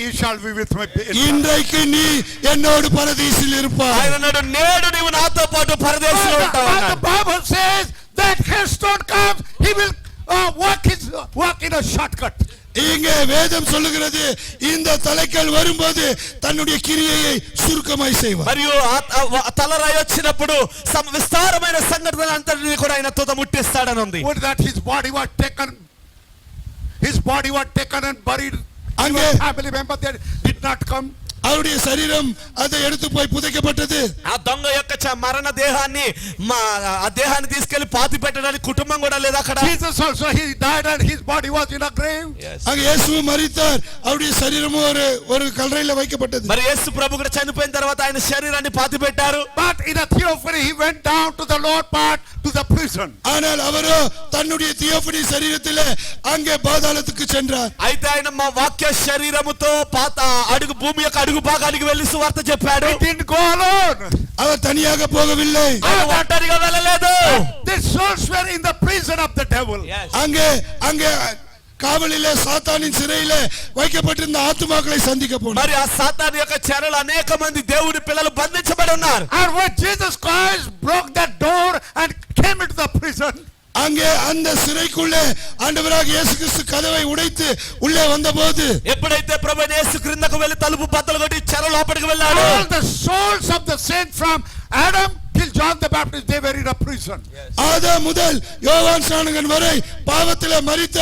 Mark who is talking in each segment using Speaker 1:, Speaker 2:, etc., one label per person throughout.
Speaker 1: You shall be with me. in-
Speaker 2: இன்றைக்கு நீ என்னோடு பரதீசில் இருப்பாய்
Speaker 3: ఆయన అన్నాడు నేడు నీవు నాతో పాటు పరదేశంలో
Speaker 1: But the-
Speaker 3: ఉంటావు
Speaker 1: but the
Speaker 3: అన్నాడు.
Speaker 1: Bible says that his stone comes, he will uh, walk his walk in a shortcut.
Speaker 2: இங்கே வேதம் சொல்லுகிறது இந்த தலைக்கல் வரும்போது தன்னுடைய கிரியையை சுருக்கமாய் செய்வார்
Speaker 3: మరియు ఆ- ఆ వ- తలరాయి వచ్చినప్పుడు సమ- విస్తారమైన సంఘటన అంతటిని కూడా ఆయన తుత ముట్టిస్తాడని ఉంది
Speaker 1: With that his body was taken, his body was taken and buried. And
Speaker 2: Amen.
Speaker 1: family member that did not come.
Speaker 2: அவருடைய சரீரம் அதை எடுத்து போய் புதைக்கப்பட்டது
Speaker 3: ఆ దొంగ యొక్క చ- మరణ దేహాన్ని మా ఆ దేహాన్ని తీసుకెళ్లి పాతి పెట్టడానికి కుటుంబం కూడా లేదు అక్కడ
Speaker 1: Jesus also, he died and his body was in a grave.
Speaker 2: அங்க இயேசுவும் மரித்தார் அவருடைய சரீரமும் ஒரு ஒரு கல்லறையில வைக்கப்பட்டது
Speaker 3: మరి యేసు ప్రభు కూడా చనిపోయిన తర్వాత ఆయన శరీరాన్ని పాతి పెట్టారు
Speaker 1: But in a theophany, he went down to the lower part, to the prison.
Speaker 2: ஆனால் அவரோ தன்னுடைய தியோபனி சரீரத்திலே அங்கே பாதாளத்துக்கு சென்றார்
Speaker 3: అయితే ఆయన మా వాక్య శరీరముతో పాత అడుగు భూమి యొక్క అడుగు భాగానికి వెళ్లి సువార్త చెప్పాడు
Speaker 1: He didn't go alone.
Speaker 2: அவர் తనియాக పోగவில்லை
Speaker 3: ఆయన ఒంటరిగా వెళ్ళలేదు
Speaker 1: The souls were in the prison of the devil.
Speaker 2: அங்கே அங்கே காவலிலே சாத்தானின் சிறையிலே வைக்கப்பட்டிருந்த ஆத்துமாக்களை சந்திக்க போனார்
Speaker 3: మరి ఆ సాతాన్ యొక్క చెరలు అనేక మంది దేవుని పిల్లలు బంధించబడి ఉన్నారు
Speaker 1: And when Jesus Christ broke that door and came into the prison,
Speaker 2: அங்கே அந்த சிறைக்குள்ளே ஆண்டவராக இயேசு கிறிஸ்து கதவை உடைத்து உள்ளே வந்தபோது
Speaker 3: ఎప్పుడైతే ప్రభు యేసు క్రిందకు వెళ్లి తలుపు బద్దలు కొట్టి చెర లోపలికి వెళ్ళాడు
Speaker 1: all the souls of the saints from Adam till John the Baptist, they were in a prison.
Speaker 2: ஆதா முதல் யோவான் சாணகன் வரை பாவத்திலே மரித்த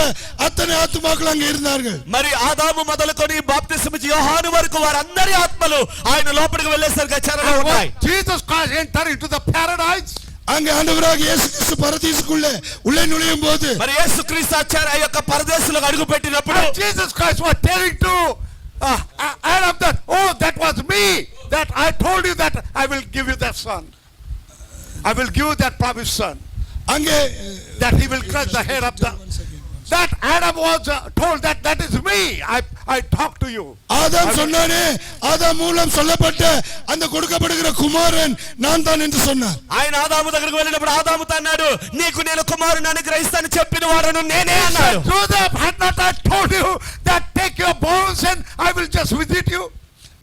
Speaker 2: அத்தனை ஆத்துமாக்கள் அங்கே இருந்தார்கள்
Speaker 3: మరి ఆదాము మొదలుకొని బాప్తిసమిచ్చి యోహాను వరకు వారందరి ఆత్మలు ఆయన లోపలికి వెళ్ళేసరికి చెరలో
Speaker 1: And
Speaker 3: ఉన్నాయి
Speaker 1: when Jesus Christ entered into the paradise,
Speaker 2: அங்கே ஆண்டவராக இயேசு கிறிஸ்து பரதீசுக்குள்ளே உள்ளே நுழையும் போது
Speaker 3: మరి యేసు క్రీస్తు ఆ యొక్క పరదేశంలో అడుగు పెట్టినప్పుడు
Speaker 1: and Jesus Christ was telling to uh, uh, Adam that, oh, that was me, that I told you that I will give you that son. I will give you that promised son,
Speaker 2: அங்கே
Speaker 1: that he will crush the head of the... That Adam was uh, told that that is me, I, I talked to you.
Speaker 2: ஆதாம் சொன்னானே ஆதாம் மூலம் சொல்லப்பட்ட அந்த கொடுக்கப்படுகிற குமாரன் நான் தான் என்று சொன்னார்
Speaker 3: ఆయన ఆదాము దగ్గరకు వెళ్ళినప్పుడు ఆదాముతో అన్నాడు నీకు నేను కుమారుని అనుగ్రహిస్తాను చెప్పిన వాడను నేనే అన్నాడు
Speaker 1: Said, Joseph, had not I told you that take your bones and I will just visit you?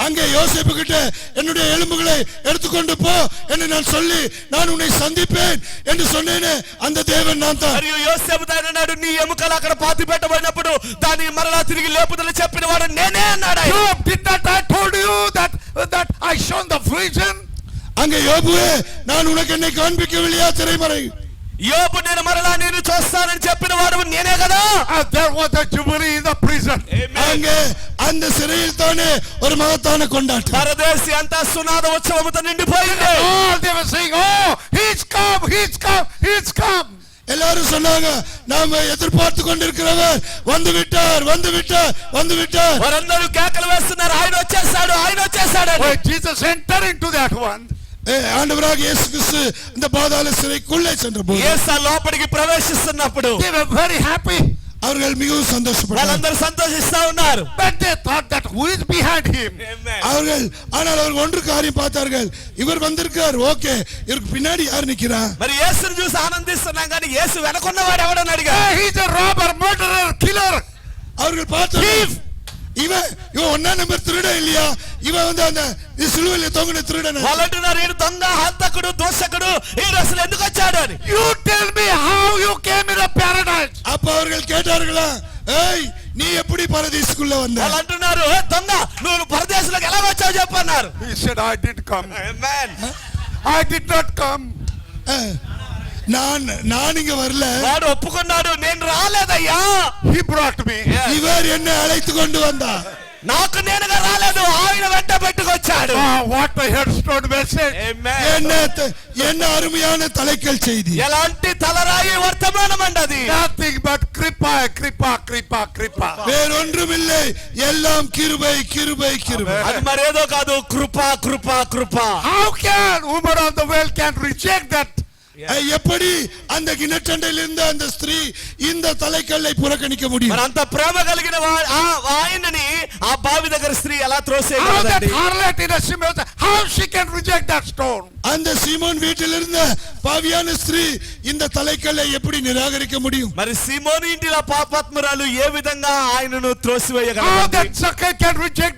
Speaker 2: அங்கே யோசேப்பு கிட்ட என்னுடைய எலும்புகளை எடுத்துக்கொண்டு போ என்று நான் சொல்லி நான் உன்னை சந்திப்பேன் என்று சொன்னேனே அந்த தேவன் நான் தான்
Speaker 3: మరియు యోసేపు ఆయన అన్నాడు నీ ఎముకలు అక్కడ పాతి పెట్టబడినప్పుడు దాన్ని మరలా తిరిగి లేపుదల చెప్పిన వాడు నేనే అన్నాడు ఆయన.
Speaker 1: Job, did not I told you that, that I shown the vision?
Speaker 2: அங்கே யோபுவே நான் உனக்கு என்னை காண்பிக்கவில்லையா திரைமறை
Speaker 3: యోబు నేను మరలా నేను చూస్తానని చెప్పిన వాడు నేనే కదా
Speaker 1: And Uh, there was a jubilee in the prison.
Speaker 2: அங்கே அந்த சிறையில் தானே ஒரு மகத்தான கொண்டாட்டம்
Speaker 3: పరదేశి అంతా సునాద ఉత్సవంతో నిండిపోయింది
Speaker 1: All they were saying, oh, he's come, he's come, he's come.
Speaker 2: எல்லாரும் சொன்னாங்க நாம எதிர்பார்த்து கொண்டிருக்கிறவர் வந்து விட்டார் வந்து விட்டார் வந்து விட்டார்
Speaker 3: వారందరూ కేకలు వేస్తున్నారు ఆయన వచ్చేసాడు ఆయన వచ్చేసాడు అని.
Speaker 1: When Jesus entered into that one,
Speaker 2: ஏ, ஆண்டவராக இயேசு கிறிஸ்து இந்த பாதாள சிறைக்குள்ளே சென்றபோது
Speaker 3: యేసు ఆ లోపలికి ప్రవేశిస్తున్నప్పుడు
Speaker 1: they were very happy.
Speaker 2: அவர்கள் மிகவும் சந்தோஷப்பட்டார்கள்
Speaker 3: వాళ్ళందరూ సంతోషిస్తా ఉన్నారు
Speaker 1: But they thought that who is behind him?
Speaker 2: அவர்கள் ஆனால் அவர்கள் ஒன்று காரியம் பார்த்தார்கள் இவர் வந்திருக்கிறார் ஓகே இவருக்கு பின்னாடி யார் நிக்கிறா
Speaker 3: మరి యేసుని చూసి ఆనందిస్తున్నాం కానీ యేసు వెనకున్నవాడు ఎవడని అడిగా
Speaker 1: Hey, he's a robber, murderer, killer.
Speaker 2: அவர்கள் பார்த்தார்கள்,
Speaker 1: Thief!
Speaker 2: இவன் இவன் ஒன்னா நம்பர் திருடன் இல்லையா இவன் வந்து அந்த சிலுவையில தொங்கின திருடன்
Speaker 3: వాళ్ళు అంటున్నారు ఈడు దొంగ హంతకుడు దోషకుడు ఈడు అసలు ఎందుకు వచ్చాడు అని
Speaker 1: You tell me how you came in a paradise.
Speaker 2: அப்ப அவர்கள் கேட்டார்களா ஏய் நீ எப்படி பரதீசுக்குள்ள வந்த
Speaker 3: వాళ్ళు అంటున్నారు "ఏ దొంగ నువ్వు పరదేశంలోకి ఎలా వచ్చావు చెప్పన్నారు
Speaker 1: He said, I did come. I did not come.
Speaker 2: அஹ், நான் நான் இங்க வரல
Speaker 3: వాడు ఒప్పుకున్నాడు నేను రాలేదయ్యా
Speaker 1: He brought me.
Speaker 2: இவர் என்னை அழைத்து கொண்டு வந்தார்
Speaker 3: నాకు నేనుగా రాలేదు ఆయన వెంట పెట్టుకొచ్చాడు
Speaker 1: Oh, what a headstone message.
Speaker 2: என்ன த- என்ன அருமையான தலைக்கல் செய்தி
Speaker 3: ఎలాంటి తలరాయి వర్తమానం అండి అది
Speaker 1: Nothing but kripa, kripa, kripa, kripa.
Speaker 2: வேறொன்றுமில்லை எல்லாம் கிருபை கிருபை கிருபை
Speaker 3: అది మరేదో కాదు కృప కృప కృప
Speaker 1: How can woman of the world can reject that
Speaker 2: அஹ், எப்படி அந்த கிணற்றண்டையில் இருந்த அந்த ஸ்திரீ இந்த தலைக்கல்லை புறக்கணிக்க
Speaker 3: మరి
Speaker 2: முடியும்
Speaker 3: అంత ప్రేమ కలిగిన వా- ఆ- ఆయనని ఆ బావి దగ్గర స్త్రీ ఎలా
Speaker 1: How that
Speaker 3: త్రోసేయగలదండి
Speaker 1: harlot in a Simeon, how she can reject that stone?
Speaker 2: அந்த சீமோன் வீட்டில் இருந்த பாவியான ஸ்திரீ இந்த தலைக்கல்லை எப்படி நிராகரிக்க முடியும்
Speaker 3: మరి సిమోని ఇంటిలో పాపాత్మరాలు ఏ విధంగా ఆయనను
Speaker 1: How
Speaker 3: త్రోసివేయగలరు
Speaker 1: that Zacchaeus can reject